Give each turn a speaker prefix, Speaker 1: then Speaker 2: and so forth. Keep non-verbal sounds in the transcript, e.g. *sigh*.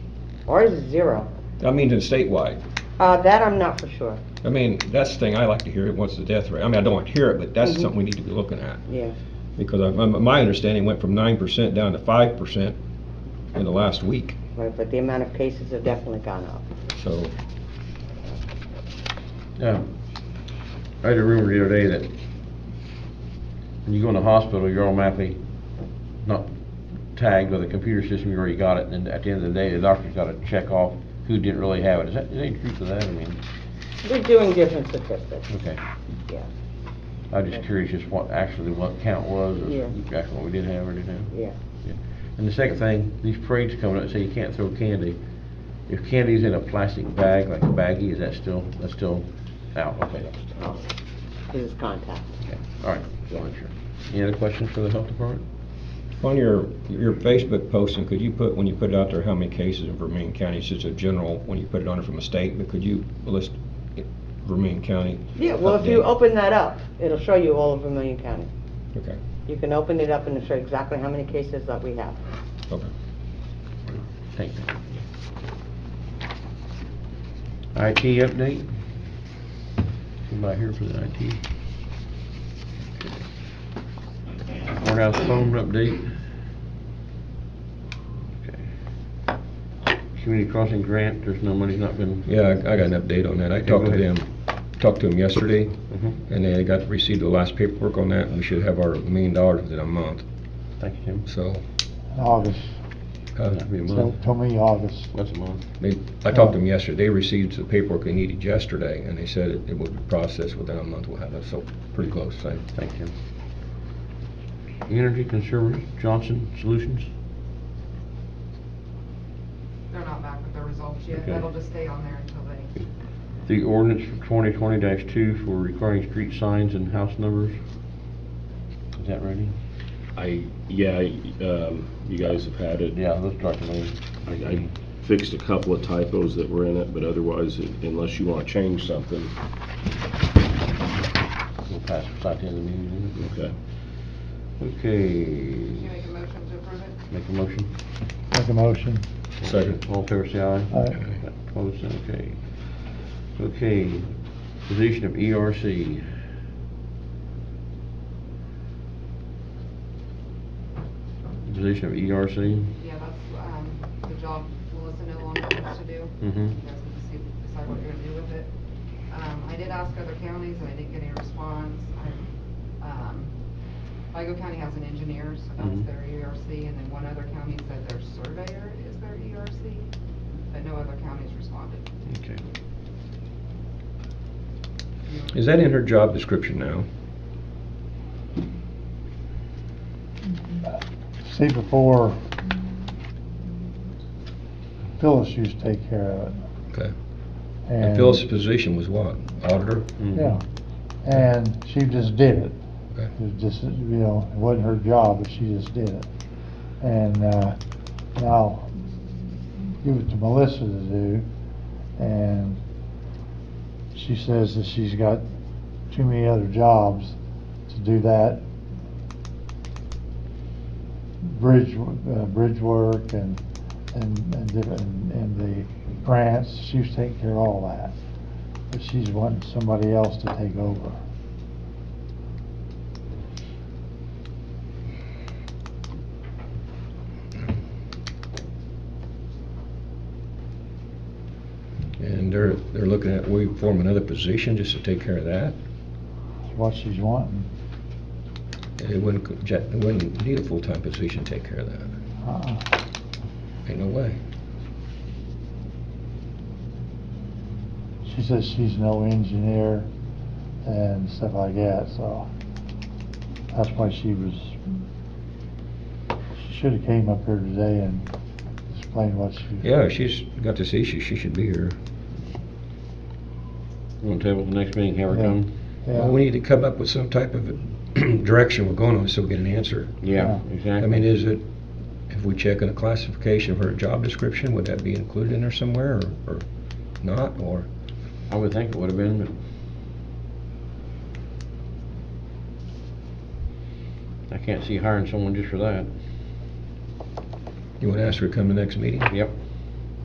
Speaker 1: Ours is zero.
Speaker 2: I mean, it's statewide.
Speaker 1: Uh, that I'm not for sure,
Speaker 2: I mean, that's the thing I like to hear, what's the death rate? I mean, I don't want to hear it, but that's
Speaker 1: Mhm.
Speaker 2: something we need to be looking at.
Speaker 1: yeah.
Speaker 2: Because I- my- my understanding went from nine percent down to five percent in the last week,
Speaker 1: Right, but the amount of cases have definitely gone up.
Speaker 2: so.
Speaker 3: Yeah. I had a rumor the other day that when you go in the hospital, you're automatically not tagged with a computer system, you already got it, and at the end of the day, the doctor's gotta check off who didn't really have it. Is that, is there any truth to that? I mean,
Speaker 1: We're doing different statistics,
Speaker 3: okay.
Speaker 1: yeah,
Speaker 3: I'm just curious just what actually what count was, or
Speaker 1: Yeah.
Speaker 3: exactly what we did have or didn't have.
Speaker 1: yeah.
Speaker 3: And the second thing, these parades coming up, say you can't throw candy. If candy's in a plastic bag, like a baggie, is that still, that's still out? Okay.
Speaker 1: Oh, This is contact.
Speaker 3: Okay. All right, so I'm sure. Any other questions for the health department?
Speaker 2: On your, your Facebook posting, could you put, when you put it out there, how many cases in Vermillion County, it's just a general, when you put it on there from a state, but could you list it- Vermillion County?
Speaker 1: Yeah, well, if you
Speaker 2: update?
Speaker 1: open that up, it'll show you all of Vermillion County.
Speaker 2: Okay,
Speaker 1: You can open it up and it'll show exactly how many cases that we have.
Speaker 2: okay.
Speaker 3: Thank you. IT update? Somebody here for the IT? Okay. Courthouse phone update? Okay. Community crossing grant, there's no money's not been.
Speaker 2: Yeah, I I got an update on that. I
Speaker 3: Okay,
Speaker 2: talked to
Speaker 3: go ahead.
Speaker 2: them, talked to them yesterday,
Speaker 3: Mhm.
Speaker 2: and they got, received the last paperwork on that, and we should have our million dollars within a month,
Speaker 3: Thank you, Tim.
Speaker 2: so.
Speaker 4: August,
Speaker 2: uh,
Speaker 3: That'd be a
Speaker 4: tell,
Speaker 3: month.
Speaker 4: tell me August.
Speaker 3: That's a month.
Speaker 2: They, I talked to them yesterday, they received the paperwork they needed yesterday, and they said it it would be processed within a month, we'll have it, so pretty close, so.
Speaker 3: Thank you. Energy Conservatives, Johnson Solutions?
Speaker 5: They're not back with the results yet.
Speaker 3: Okay.
Speaker 5: That'll just stay on there until they,
Speaker 3: The ordinance for twenty twenty two for requiring street signs and house numbers. Is that ready?
Speaker 6: I, yeah, I, um, you guys have had it.
Speaker 3: Yeah, let's talk about it.
Speaker 6: I, I fixed a couple of typos that were in it, but otherwise, unless you want to change something,
Speaker 3: We'll pass it out to the meeting.
Speaker 6: okay.
Speaker 5: you
Speaker 3: Okay,
Speaker 5: make a motion to approve it?
Speaker 3: make a motion.
Speaker 4: Make a motion.
Speaker 2: Second.
Speaker 3: All in favor, say aye.
Speaker 4: Aye.
Speaker 3: Opposed, okay. Okay, position of E ERC. Position of E ERC?
Speaker 5: Yeah, that's, um, the job Melissa no longer wants to do.
Speaker 2: Mm-hmm.
Speaker 3: Mhm.
Speaker 5: You guys can deci- decide what you're gonna do with it. Um, I did ask other counties and I didn't get any response. I- um, Igo County has an engineer, so that's
Speaker 2: Mm-hmm.
Speaker 3: Mhm.
Speaker 5: their ERC, and then one other county said their surveyor is their ERC, but no other counties responded.
Speaker 3: Okay.
Speaker 2: Is that in her job description now?
Speaker 4: See before Phyllis used to take care of it.
Speaker 2: Okay. And Phyllis's position was what? Auditor?
Speaker 3: Mhm.
Speaker 4: Yeah, and she just did it.
Speaker 2: Okay.
Speaker 4: It was just, you know, it wasn't her job, but she just did it. And, uh, now, give it to Melissa to do, and she says that she's got too many other jobs to do that. Bridge, uh, bridge work and, and, and different, and the grants, she was taking care of all that. But she's wanting somebody else to take over.
Speaker 2: And they're, they're looking at, we form another position just to take care of that?
Speaker 4: That's what she's wanting.
Speaker 2: And it wouldn't, co- ja- it wouldn't need a full-time position to take care of that.
Speaker 4: Uh-uh.
Speaker 2: Ain't no way.
Speaker 4: She says she's no engineer and stuff like that, so that's why she was, she should have came up here today and explained what she.
Speaker 2: Yeah, she's got this issue, she should be here.
Speaker 3: Want to table the next meeting, have her
Speaker 4: Yeah.
Speaker 3: come?
Speaker 4: Yeah.
Speaker 2: Well, we need to come up with some type of *clears throat* direction we're going on so we get an answer.
Speaker 3: Yeah,
Speaker 4: Yeah.
Speaker 3: exactly.
Speaker 2: I mean, is it, if we check in a classification of her job description, would that be included in there somewhere or, or not, or?
Speaker 3: I would think it would have been, but. I can't see hiring someone just for that.
Speaker 2: You want to ask her to come to the next meeting?
Speaker 3: Yep.